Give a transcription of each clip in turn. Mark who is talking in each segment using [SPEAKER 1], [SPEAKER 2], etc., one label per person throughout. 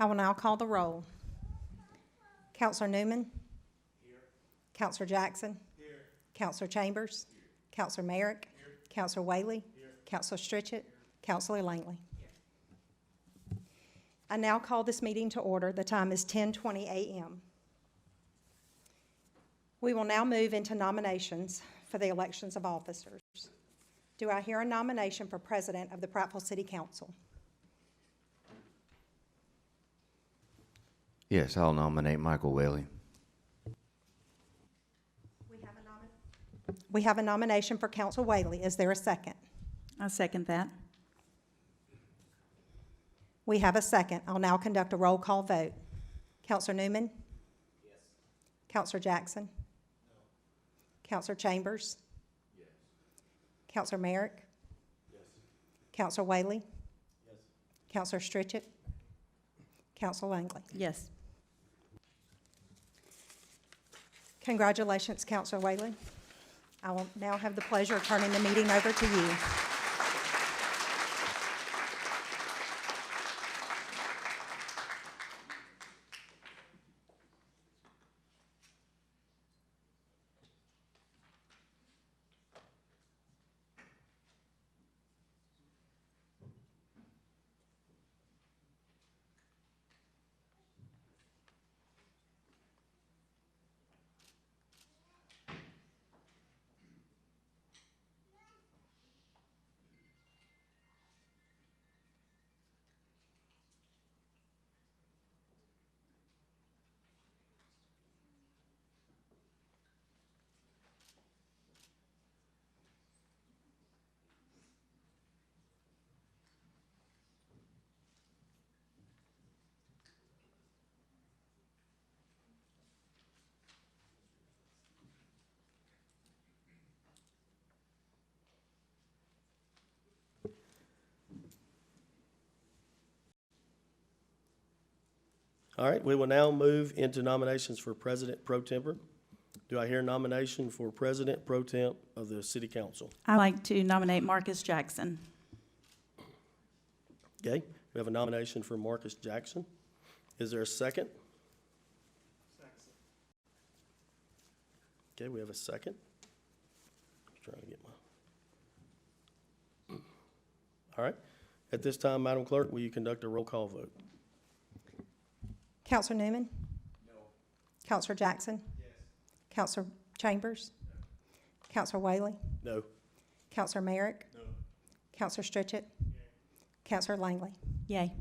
[SPEAKER 1] I will now call the roll. Counselor Newman? Counselor Jackson? Counselor Chambers? Counselor Merrick? Counselor Whaley? Counselor Stritchett? Counselor Langley? I now call this meeting to order. The time is 10:20 a.m. We will now move into nominations for the elections of officers. Do I hear a nomination for president of the Prattville City Council?
[SPEAKER 2] Yes, I'll nominate Michael Whaley.
[SPEAKER 1] We have a nomination for Council Whaley. Is there a second?
[SPEAKER 3] I second that.
[SPEAKER 1] We have a second. I'll now conduct a roll call vote. Counselor Newman? Yes. Counselor Jackson? No. Counselor Chambers? Yes. Counselor Merrick? Yes. Counselor Whaley? Yes. Counselor Stritchett? Counselor Langley?
[SPEAKER 3] Yes.
[SPEAKER 1] Congratulations, Counselor Whaley. I will now have the pleasure of turning the meeting over to you.
[SPEAKER 4] All right, we will now move into nominations for President Pro Temper. Do I hear a nomination for President Pro Temp of the City Council?
[SPEAKER 3] I'd like to nominate Marcus Jackson.
[SPEAKER 4] Okay, we have a nomination for Marcus Jackson. Is there a second? Okay, we have a second. Just Trying to get my. All right, at this time, Madam Clerk, will you conduct a roll call vote?
[SPEAKER 1] Counselor Newman? No. Counselor Jackson? Yes. Counselor Chambers? Counselor Whaley?
[SPEAKER 4] No.
[SPEAKER 1] Counselor Merrick? No. Counselor Stritchett? Counselor Langley?
[SPEAKER 3] Yay.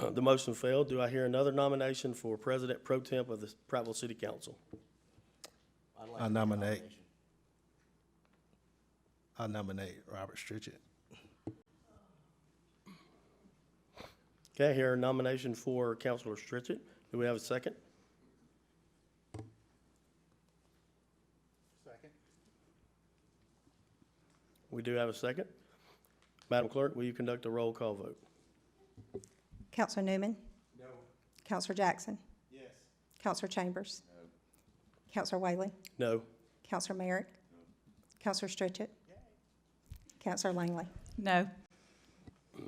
[SPEAKER 4] Uh, The motion failed. Do I hear another nomination for President Pro Temp of the Prattville City Council?
[SPEAKER 5] I nominate. I nominate Robert Stritchett.
[SPEAKER 4] Okay, I hear a nomination for Counselor Stritchett. Do we have a second? Second. We do have a second. Madam Clerk, will you conduct a roll call vote?
[SPEAKER 1] Counselor Newman? No. Counselor Jackson?
[SPEAKER 4] Yes.
[SPEAKER 1] Counselor Chambers? No. Counselor Whaley?
[SPEAKER 4] No.
[SPEAKER 1] Counselor Merrick? Counselor Stritchett? Counselor Langley?
[SPEAKER 3] No.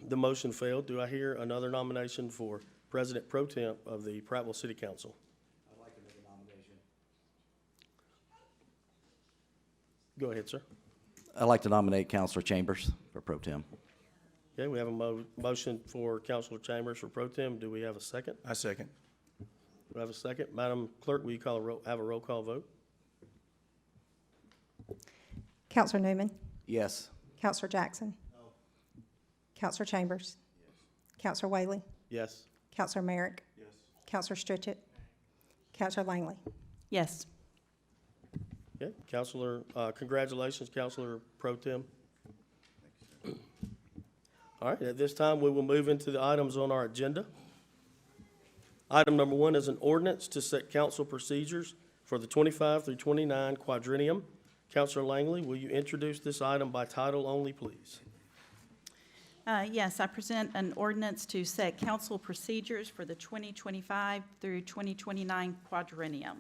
[SPEAKER 4] The motion failed. Do I hear another nomination for President Pro Temp of the Prattville City Council? I'd like to make a nomination. Go ahead, sir.
[SPEAKER 6] I'd like to nominate Counselor Chambers for pro tem.
[SPEAKER 4] Okay, we have a mo- motion for Counselor Chambers for pro tem. Do we have a second?
[SPEAKER 5] I second.
[SPEAKER 4] Do we have a second? Madam Clerk, will you call a roll, have a roll call vote?
[SPEAKER 1] Counselor Newman?
[SPEAKER 6] Yes.
[SPEAKER 1] Counselor Jackson? No. Counselor Chambers? Counselor Whaley?
[SPEAKER 4] Yes.
[SPEAKER 1] Counselor Merrick? Yes. Counselor Stritchett? Counselor Langley?
[SPEAKER 3] Yes.
[SPEAKER 4] Okay, Counselor, uh, congratulations, Counselor Pro Tem. All right, at this time, we will move into the items on our agenda. Item number one is an ordinance to set council procedures for the twenty-five through twenty-nine quadrennium. Counselor Langley, will you introduce this item by title only, please?
[SPEAKER 3] Uh, Yes, I present an ordinance to set council procedures for the 2025 through 2029 quadrennium.